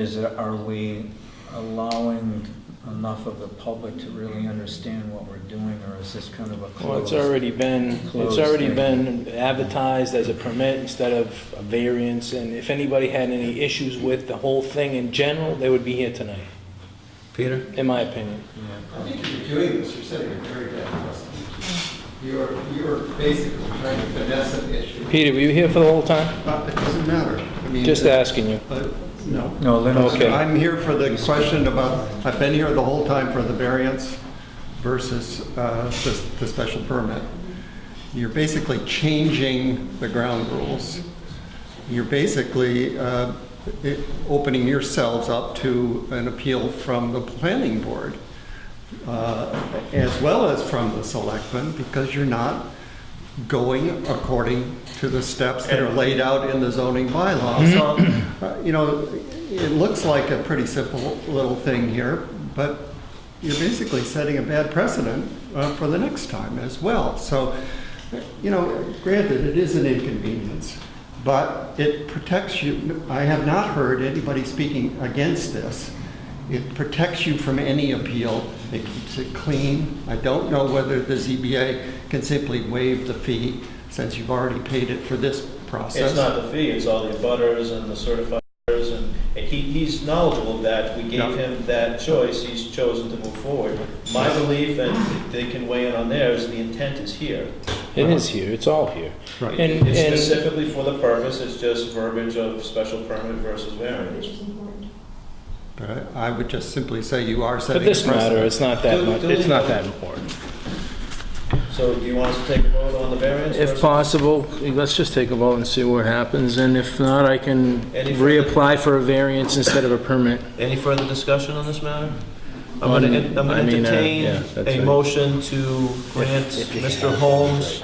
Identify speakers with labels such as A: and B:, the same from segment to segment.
A: Is, it- are we allowing enough of the public to really understand what we're doing, or is this kind of a
B: Well,
A: closed?
B: it's already been, it's
A: Closed
B: already
A: thing.
B: been advertised as a permit instead of a variance, and if anybody had any issues with the whole thing in general, they would be here tonight,
C: Peter?
B: in my opinion.
D: I think if you're doing this, you're setting a very bad precedent. You're, you're basically trying to finesse an issue,
B: Peter, were you here for the whole time?
D: but it doesn't matter. I mean,
B: Just
D: it-
B: asking you.
D: uh, No.
A: No, Lynn's.
B: Okay.
D: I'm here for the question about, I've been here the whole time for the variance versus uh, the the special permit. You're basically changing the ground rules. You're basically uh, i- opening yourselves up to an appeal from the planning board uh, as well as from the selectmen because you're not going according to the steps that are laid out in the zoning bylaw. So, uh, you know, it looks like a pretty simple little thing here, but you're basically setting a bad precedent uh, for the next time as well. So, you know, granted, it is an inconvenience, but it protects you. I have not heard anybody speaking against this. It protects you from any appeal. It keeps it clean. I don't know whether the ZBA can simply waive the fee since you've already paid it for this process.
E: It's not the fee, it's all the butters and the certifiers, and and he, he's knowledgeable of that we
D: Yeah.
E: gave him that choice, he's chosen to move forward. My belief, and they can weigh in on theirs, the intent is here.
B: It is here, it's all here.
D: Right.
B: And,
E: It's
B: and,
E: specifically for the purpose, it's just verbiage of special permit versus variance.
D: But I I would just simply say you are
B: for
D: setting a
B: this matter,
D: precedent.
B: it's not that
E: Do-
B: much,
E: do
B: it's
E: we-
B: not that important.
E: So do you want us to take a vote on the variance?
B: If
E: versus-
B: possible, let's just take a vote and see what happens, and if not, I can
E: Any further-
B: reapply for a variance instead of a permit.
E: Any further discussion on this matter? I'm gonna,
B: Um,
E: en- I'm
B: I
E: gonna
B: mean, uh,
E: entertain
B: yeah, that's
E: a
B: right.
E: motion to grant Mr. Holmes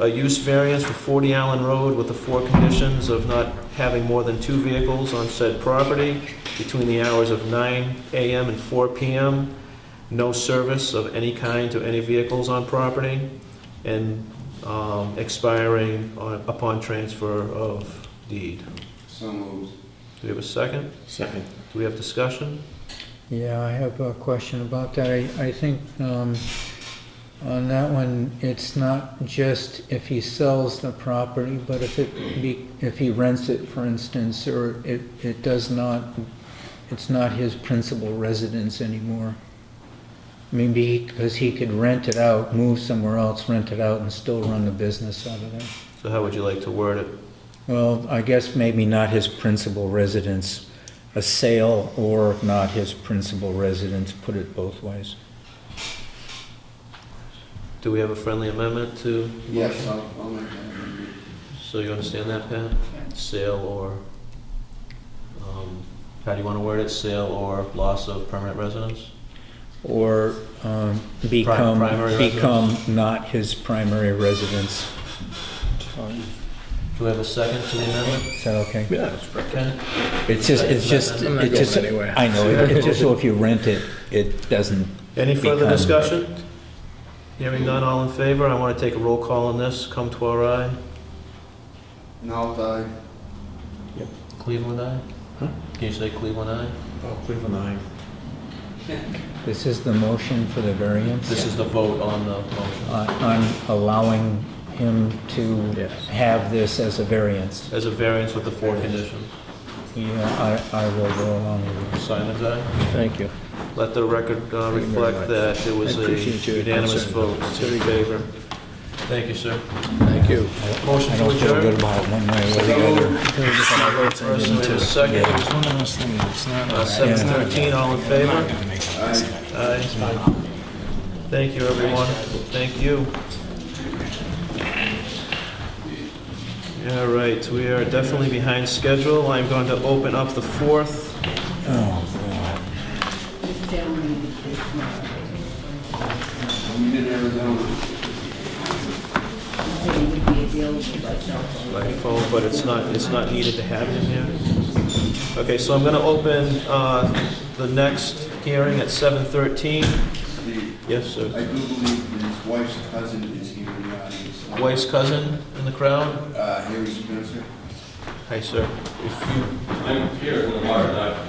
E: a use variance for 40 Allen Road with the four conditions of not having more than two vehicles on said property between the hours of 9 AM and 4 PM, no service of any kind to any vehicles on property, and um, expiring on- upon transfer of deed. So moved. Do we have a second?
C: Second.
E: Do we have discussion?
A: Yeah, I have a question about that. I, I think, um, on that one, it's not just if he sells the property, but if it be, if he rents it, for instance, or it, it does not, it's not his principal residence anymore. Maybe, because he could rent it out, move somewhere else, rent it out, and still run the business out of there.
E: So how would you like to word it?
A: Well, I guess maybe not his principal residence, a sale or not his principal residence, put it both ways.
E: Do we have a friendly amendment to?
F: Yes, I'll, I'll make that amendment.
E: So you understand that, Pat? Sale or, um, how do you want to word it? Sale or loss of permanent residence?
A: Or um, become,
E: primary residence.
A: become not his primary residence.
E: Do we have a second to the amendment?
A: Is that okay?
C: Yeah.
E: Okay.
A: It's just, it's just,
E: I'm
C: not
A: it's just,
C: going anywhere.
A: I know, it- it's just so if you rent it, it doesn't,
E: Any further
A: Become.
E: discussion? Hearing none, all in favor? I want to take a roll call on this. Come to our eye.
F: And I'll die.
E: Cleveland eye?
C: Huh?
E: Can you say Cleveland eye?
C: Oh, Cleveland, aye.
A: this is the motion for the variance?
E: This is the vote on the motion.
A: Uh, I'm allowing him to
C: Yes.
A: have this as a variance.
E: As a variance with the four conditions.
A: Yeah, I, I will go along with it.
E: Simon's eye?
B: Thank you.
E: Let the record uh,
C: Thank you very
E: reflect
C: much.
E: that it was
C: I
E: a
C: appreciate your
E: unanimous
C: concern.
E: vote in favor. Thank you, sir.
C: Thank you.
E: Motion
A: I
E: to
A: don't feel good
E: adjourn.
A: about it one way or the other.
E: First and a second. Uh, Seven thirteen, all in favor? Aye. Thank you, everyone. Thank you. All right, we are definitely behind schedule. I'm going to open up the fourth.
F: We did Arizona.
E: by phone, but it's not, it's not needed to have him here. Okay, so I'm gonna open, uh, the next hearing at seven thirteen.
F: Steve,
E: Yes,
F: I
E: sir.
F: do believe that his wife's cousin is here in the audience.
E: Wife's cousin in the crowd?
F: Uh, Harry Spencer.
E: Hi, sir. If you
G: I'm here in the water,